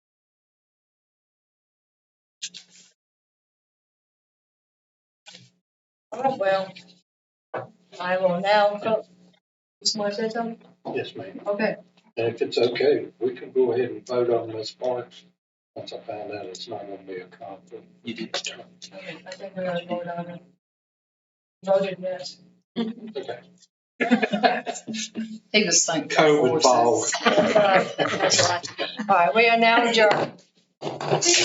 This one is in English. All right, well, I will now, vote. you want to say something? Yes, ma'am. Okay, And if it's okay, we can go ahead and vote on Ms. Parks once I find out it's not gonna be a conflict. You did. I think we're gonna vote on it. Voted yes. Okay. He was thinking. COVID forces. ball. All right, we are now adjourned.